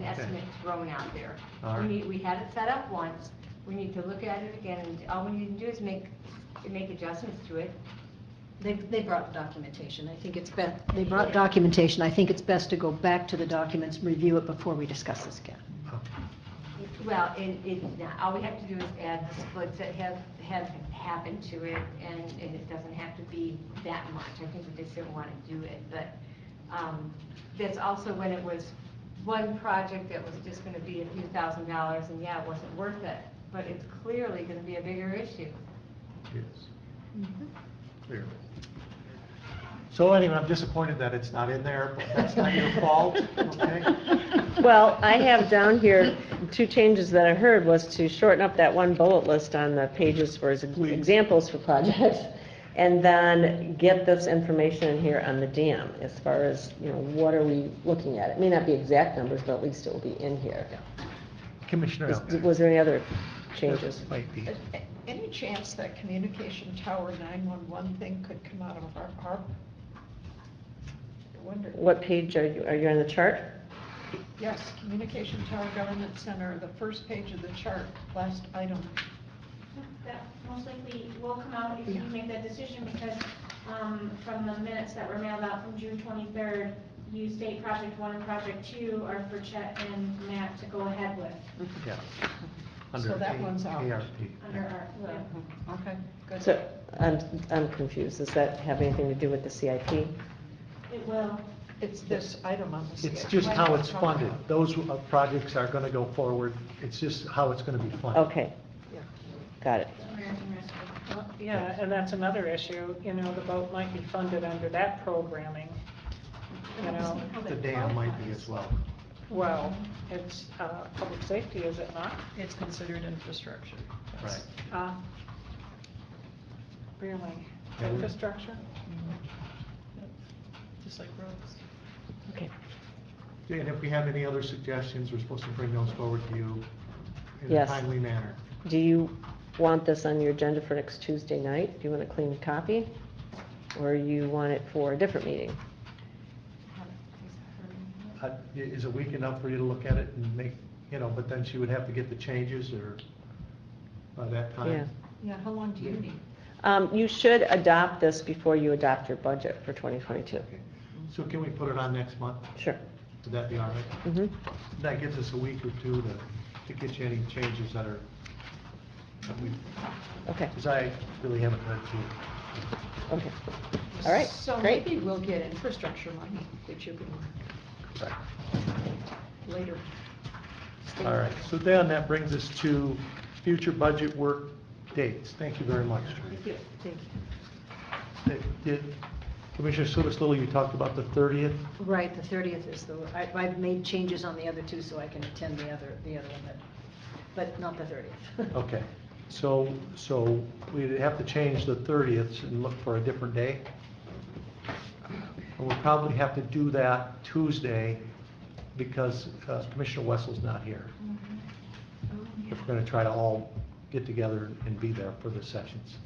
estimate thrown out there. All We right. need, we had it set up once, we need to look at it again, and all we need to do is make, make adjustments to it. They, they brought documentation, I think it's best, they brought documentation, I think it's best to go back to the documents, review it before we discuss this again. Well, and it, all we have to do is add the splits that have, have happened to it, and, and it doesn't have to be that much. I think we just didn't want to do it, but, um, that's also when it was one project that was just gonna be a few thousand dollars, and yeah, it wasn't worth it, but it's clearly gonna be a bigger issue. Yes. Mm-hmm. Clearly. So anyway, I'm disappointed that it's not in there, but that's not your fault, okay? Well, I have down here, two changes that I heard was to shorten up that one bullet list on the pages for ex- Please. examples for projects, and then get this information in here on the dam, as far as, you know, what are we looking at? It may not be exact numbers, but at least it will be in here. Commissioner Is- Elkins. Was there any other changes? This Might be. Any chance that communication tower 911 thing could come out of our ARP? I wonder. What page are you, are you on the chart? Yes, communication tower government center, the first page of the chart, last item. That most likely will come out if you Yeah. make that decision, because um, from the minutes that were mailed out from June 23rd, you state project one and project two are for Chet and Matt to go ahead with, Yeah. So that one's out. ARP. under our, yeah. Okay, good. So, I'm, I'm confused, does that have anything to do with the CIP? it will. It's this item on the CIP. It's just how it's funded. Those uh, projects are going to go forward. It's just how it's going to be funded. Okay, Yeah. got it. American Rescue. Well, Yeah, and that's another issue, you know, the boat might be funded under that programming, you know. The dam might be as well. Well, it's, uh, public safety, is it not? It's considered infrastructure. Right. Uh, Really, Yeah, we- infrastructure? Mm-hmm. Just like roads. Okay. And if we have any other suggestions, we're supposed to bring those forward to you in a Yes. timely manner. Do you want this on your agenda for next Tuesday night? Do you want a clean copy? Or you want it for a different meeting? Uh, i- Is it weak enough for you to look at it and make, you know, but then she would have to get the changes or by that Yeah. time? Yeah, how long do you need? Mm-hmm. Um, You should adopt this before you adopt your budget for 2022. Okay. So can we put it on next month? Sure. Would that be all right? Mhm. That gives us a week or two to, to get you any changes that are, that we, Okay, because I really haven't read through. it. okay. All right, So great. maybe we'll get infrastructure money that you can, later. All right, so then that brings us to future budget work dates. Thank you very much. Thank you. Thank you. Did- did- Commissioner Sutis Little, you talked about the 30th. Right, the 30th is the, I, I've made changes on the other two so I can attend the other, the other one, but, but not the 30th. Okay, so, so we'd have to change the 30th and look for a different day. And we'll probably have to do that Tuesday because uh, Commissioner Wessel's not here. If we're gonna try to all get together and be there for the sessions.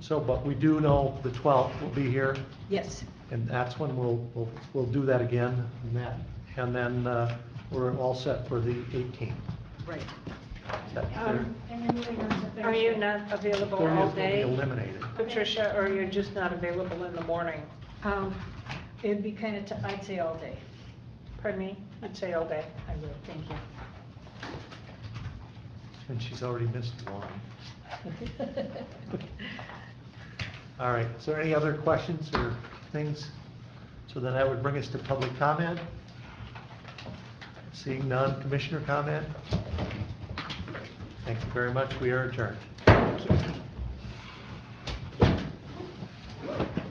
So, but we do know the 12th will be here. Yes, And that's when we'll, we'll, we'll do that again, and that, and then, uh, we're all set for the 18th. right. Is that clear? Um, And then moving on to Thursday. Are you not available 30th all will be day, eliminated. Patricia, or you're just not available in the morning? Um, It'd be kind of, I'd say all day. Pardon me, I'd say all day. I will, thank you. And she's already missed one. All right, is there any other questions or things? So then that would bring us to public comment. Seeing none, commissioner comment? Thank you very much, we are adjourned.